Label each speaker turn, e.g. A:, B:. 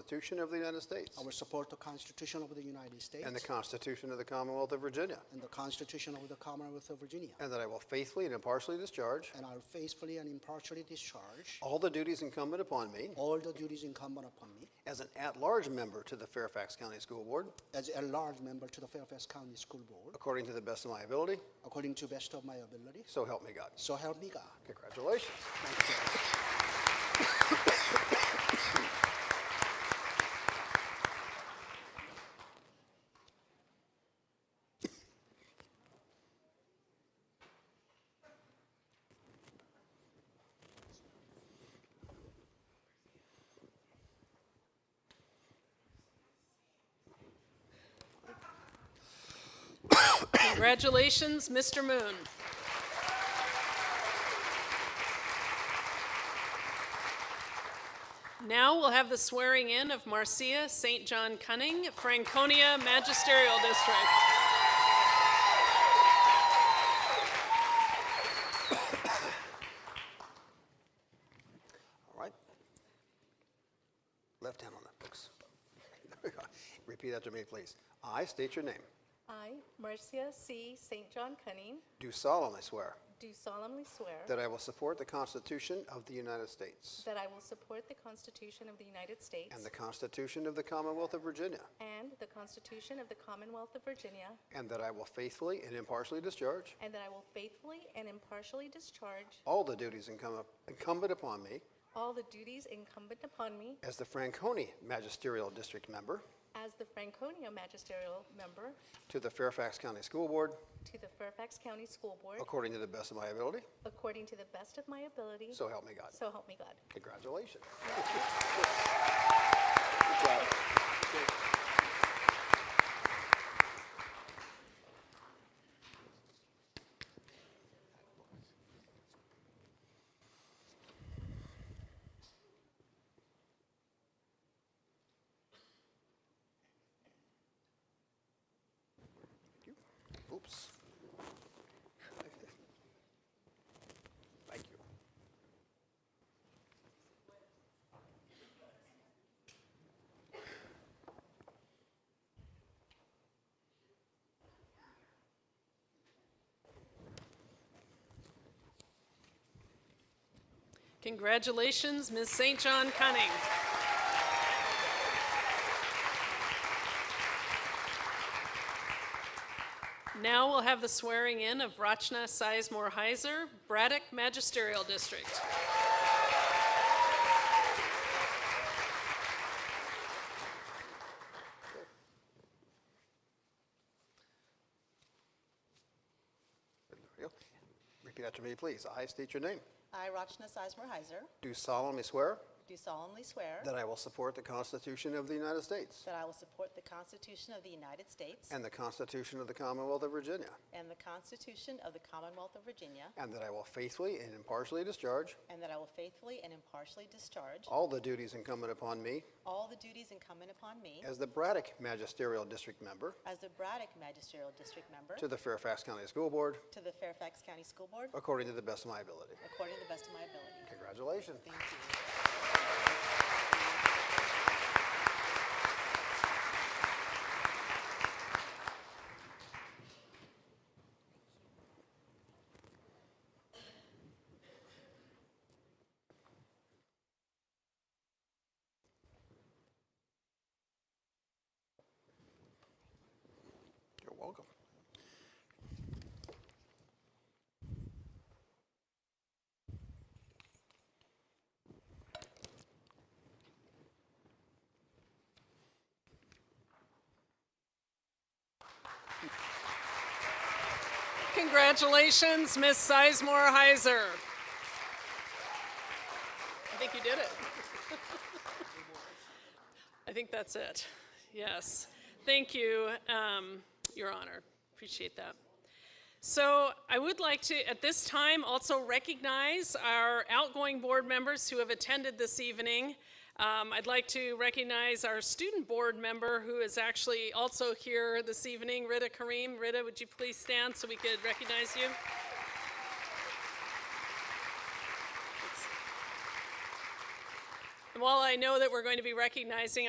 A: Constitution of the United States
B: I will support the Constitution of the United States
A: and the Constitution of the Commonwealth of Virginia,
B: and the Constitution of the Commonwealth of Virginia.
A: and that I will faithfully and impartially discharge
B: And I will faithfully and impartially discharge
A: all the duties incumbent upon me
B: all the duties incumbent upon me
A: as an at-large member to the Fairfax County School Board
B: as a large member to the Fairfax County School Board
A: according to the best of my ability,
B: according to best of my ability.
A: so help me God.
B: So help me God.
A: Congratulations.
B: Thank you.
C: Congratulations, Mr. Moon. Now we'll have the swearing in of Marcia St. John Cunning, Franconia Magisterial District.
A: All right. Left hand on the books. There we go. Repeat after me, please. I state your name.
D: I, Marcia C. St. John Cunning,
A: Do solemnly swear
D: do solemnly swear
A: that I will support the Constitution of the United States
D: that I will support the Constitution of the United States
A: and the Constitution of the Commonwealth of Virginia,
D: and the Constitution of the Commonwealth of Virginia,
A: and that I will faithfully and impartially discharge
D: and that I will faithfully and impartially discharge
A: all the duties incum- incumbent upon me
D: all the duties incumbent upon me
A: as the Franconia Magisterial District Member
D: as the Franconia Magisterial Member
A: to the Fairfax County School Board
D: to the Fairfax County School Board
A: according to the best of my ability,
D: according to the best of my ability.
A: so help me God.
D: So help me God.
A: Congratulations. Oops. Thank you.
C: Congratulations, Ms. St. John Cunning. Now we'll have the swearing in of Rachna Sizemore Heiser, Braddock Magisterial District.
A: There we go. Repeat after me, please. I state your name.
E: I, Rachna Sizemore Heiser,
A: Do solemnly swear
E: do solemnly swear
A: that I will support the Constitution of the United States
E: that I will support the Constitution of the United States
A: and the Constitution of the Commonwealth of Virginia,
E: and the Constitution of the Commonwealth of Virginia,
A: and that I will faithfully and impartially discharge
E: and that I will faithfully and impartially discharge
A: all the duties incumbent upon me
E: all the duties incumbent upon me
A: as the Braddock Magisterial District Member
E: as the Braddock Magisterial District Member
A: to the Fairfax County School Board
E: to the Fairfax County School Board
A: according to the best of my ability.
E: according to the best of my ability.
A: Congratulations.
E: Thank you.
A: You're welcome.
C: Congratulations, Ms. Sizemore Heiser. I think you did it. I think that's it. Yes. Thank you, um, Your Honor. Appreciate that. So I would like to, at this time, also recognize our outgoing board members who have attended this evening. Um, I'd like to recognize our student board member who is actually also here this evening, Rita Kareem. Rita, would you please stand so we could recognize you? And while I know that we're going to be recognizing